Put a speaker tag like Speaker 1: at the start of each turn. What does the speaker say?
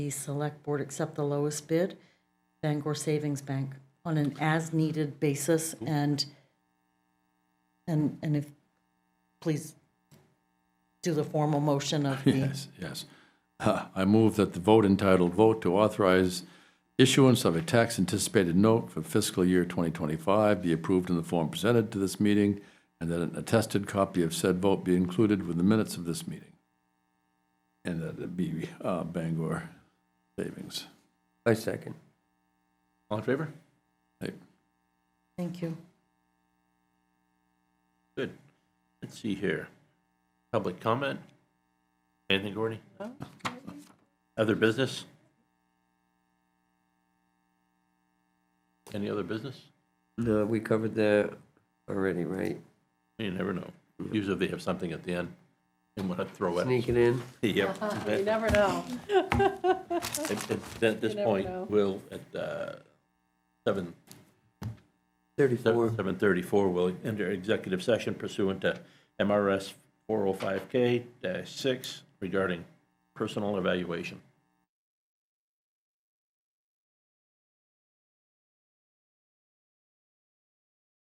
Speaker 1: the select board accept the lowest bid, Bangor Savings Bank, on an as-needed basis and, and, and if, please do the formal motion of the,
Speaker 2: Yes, yes. Uh, I move that the vote entitled Vote to Authorize Issuance of a Tax Anticipated Note for Fiscal Year 2025 be approved in the form presented to this meeting, and that an attested copy of said vote be included with the minutes of this meeting. And that it be uh, Bangor Savings.
Speaker 3: I second.
Speaker 4: All in favor?
Speaker 2: Hey,
Speaker 1: thank you.
Speaker 4: Good. Let's see here. Public comment? Anything, Gordy? Other business? Any other business?
Speaker 3: No, we covered that already, right?
Speaker 4: You never know. Usually they have something at the end and want to throw at us.
Speaker 3: Sneak it in.
Speaker 4: Yep.
Speaker 5: You never know.
Speaker 4: At at- at this
Speaker 5: You never
Speaker 4: point,
Speaker 5: know.
Speaker 4: we'll, at uh, seven
Speaker 3: Thirty-four.
Speaker 4: 7:34, we'll enter executive session pursuant to oh MRS 405K-6 regarding personal evaluation.